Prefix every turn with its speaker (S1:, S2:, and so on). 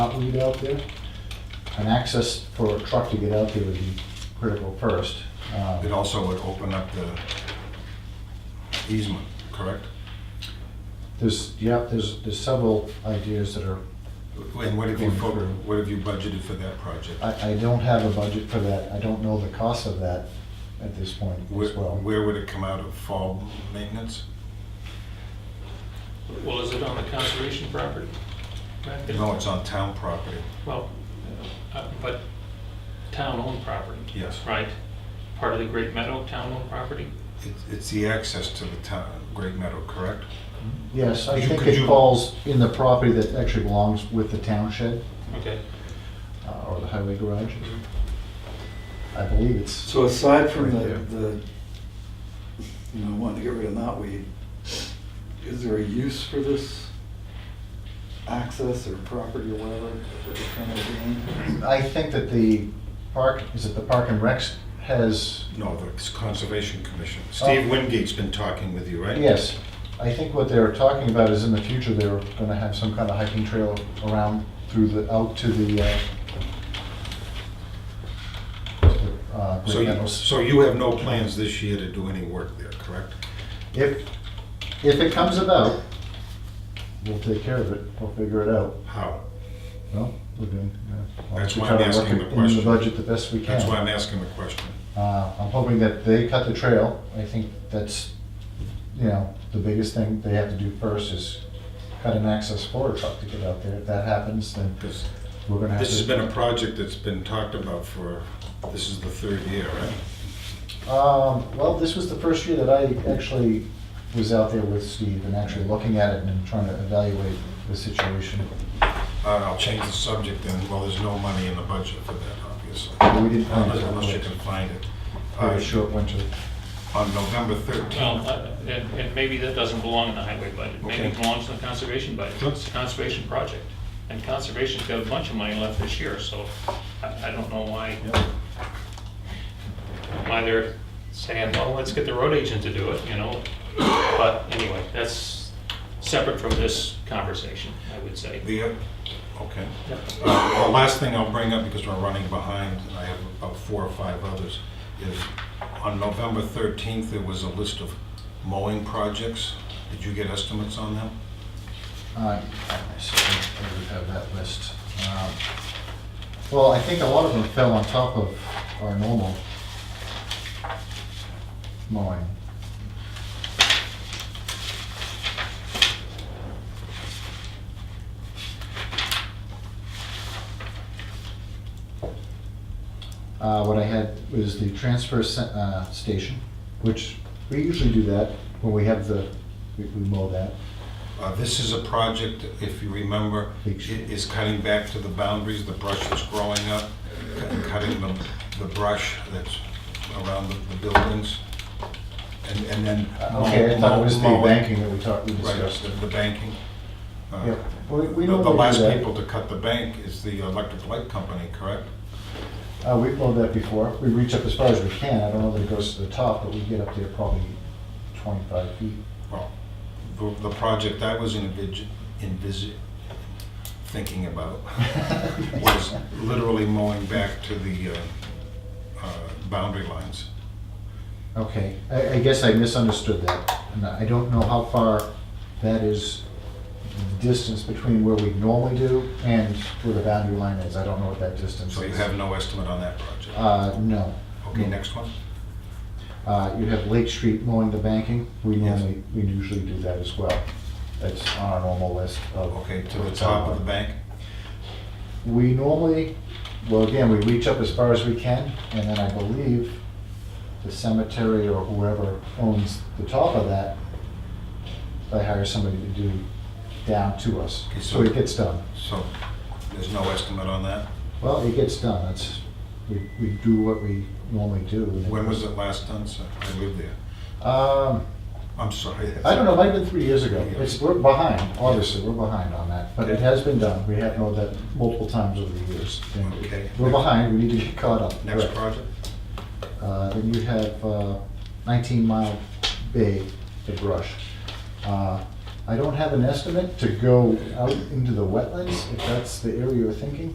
S1: trucking to get out there. An access for a truck to get out there would be critical first. Um,
S2: It also would open up the easement, correct?
S1: There's, yeah, there's, there's several ideas that are,
S2: And what have you, fo- what have you budgeted for that project?
S1: I, I don't have a budget for that. I don't know the cost of that at this point
S2: Where
S1: as well.
S2: where would it come out of, fall maintenance?
S3: Well, is it on the conservation property? Right?
S2: No, it's on town property,
S3: Well, uh, but town-owned property,
S2: yes.
S3: right? Part of the Great Meadow town-owned property?
S2: It's- It's the access to the town, Great Meadow, correct?
S1: Yes, I
S2: Could you-
S1: think
S2: could
S1: it
S2: you-
S1: falls in the property that actually belongs with the township
S3: Okay.
S1: uh, or the highway garage.
S2: Mm-hmm.
S3: Mhm.
S1: I believe it's,
S4: So aside from
S2: Right
S4: the,
S2: there.
S4: the, you know, wanting to get rid of knotweed, is there a use for this access or property or whatever that we're trying to gain?
S1: I think that the park, is it the Park and Recs has
S2: No, the Conservation Commission. Steve Wingate's been talking with you, right?
S1: Oh. Yes, I think what they're talking about is in the future, they're gonna have some kind of hiking trail around through the, out to the, uh, to the, uh,
S2: So
S1: Great
S2: you,
S1: Meadows.
S2: so you have no plans this year to do any work there, correct?
S1: If, if it comes about, we'll take care of it, we'll figure it out.
S2: How?
S1: Well, we're doing, yeah. I'll
S2: That's
S1: try
S2: why I'm
S1: to work
S2: asking
S1: it
S2: the
S1: In
S2: question.
S1: the budget the best we can.
S2: That's why I'm asking the question.
S1: Uh, I'm hoping that they cut the trail. I think that's, you know, the biggest thing they have to do first is cut an access for a truck to get out there. If that happens, then
S2: Because
S1: we're gonna have to.
S2: this has been a project that's been talked about for, this is the third year, right?
S1: Um, well, this was the first year that I actually was out there with Steve and actually looking at it and trying to evaluate the situation.
S2: All right, Uh, I'll change the subject then. Well, there's no money in the budget for that, obviously.
S1: We didn't find it.
S2: Unless you can find it. Uh,
S1: Very short winter.
S2: On November 13th.
S3: Well, uh, and, and maybe that doesn't belong in the highway budget. Maybe it
S2: Okay.
S3: belongs in the conservation budget.
S2: Sure.
S3: It's a conservation project. And conservation's got a bunch of money left this year, so I, I don't know why,
S2: Yeah.
S3: why they're saying, well, let's get the road agent to do it, you know? But anyway, that's separate from this conversation, I would say.
S2: The, uh, okay.
S3: Yep.
S2: Uh, well, Last thing I'll bring up, because we're running behind, and I have about four or five others, is on November 13th, there was a list of mowing projects. Did you get estimates on them?
S1: I, I certainly would have that list. Um, Well, I think a lot of them fell on top of our normal mowing. Uh, what I had was the transfer se- uh, station, which we usually do that when we have the, we we mow that.
S2: Uh, This is a project, if you remember, i- is cutting back to the boundaries, the brush that's growing up, cu- cutting the the brush that's around the the buildings, and and then... mow-
S1: Uh, Okay, I thought it was the
S2: mowing-
S1: banking that we talked, we
S2: Right,
S1: discussed.
S2: the the banking. Uh,
S1: Yeah, we- we
S2: The the
S1: normally do
S2: last
S1: that.
S2: people to cut the bank is the electric light company, correct?
S1: Uh, we've mowed that before. We reach up as far as we can. I don't know that it goes to the top, but we get up there probably twenty-five feet.
S2: Well, the the project I was envis- envis- thinking about was literally mowing back to the uh, uh, boundary lines.
S1: Okay, I, I guess I misunderstood that. And I don't know how far that is, the distance between where we normally do and where the boundary line is. I don't know what that distance is.
S2: So you have no estimate on that project.
S1: Uh, no.
S2: Okay, next one.
S1: Uh, you have Lake Street mowing the banking. We
S2: Yes.
S1: normally, we usually do that as well. That's on our normal list of.
S2: Okay, to the top of the bank.
S1: We normally, well, again, we reach up as far as we can, and then I believe the cemetery or whoever owns the top of that, they hire somebody to do down to us,
S2: Okay, so-
S1: so it gets done.
S2: So there's no estimate on that.
S1: Well, it gets done, that's, we, we do what we normally do.
S2: When was it last done, sir? I lived there.
S1: Um,
S2: I'm sorry.
S1: I don't know, it might have been three years ago. It's, we're behind, obviously, we're behind on that, but it has been done. We have known that multiple times over the years. and
S2: Okay.
S1: We're behind, we need to get caught up.
S2: Next
S1: Correct.
S2: project?
S1: Uh, Then you have uh, 19 Mile Bay, the brush. Uh, I don't have an estimate to go out into the wetlands, if that's the area you're thinking.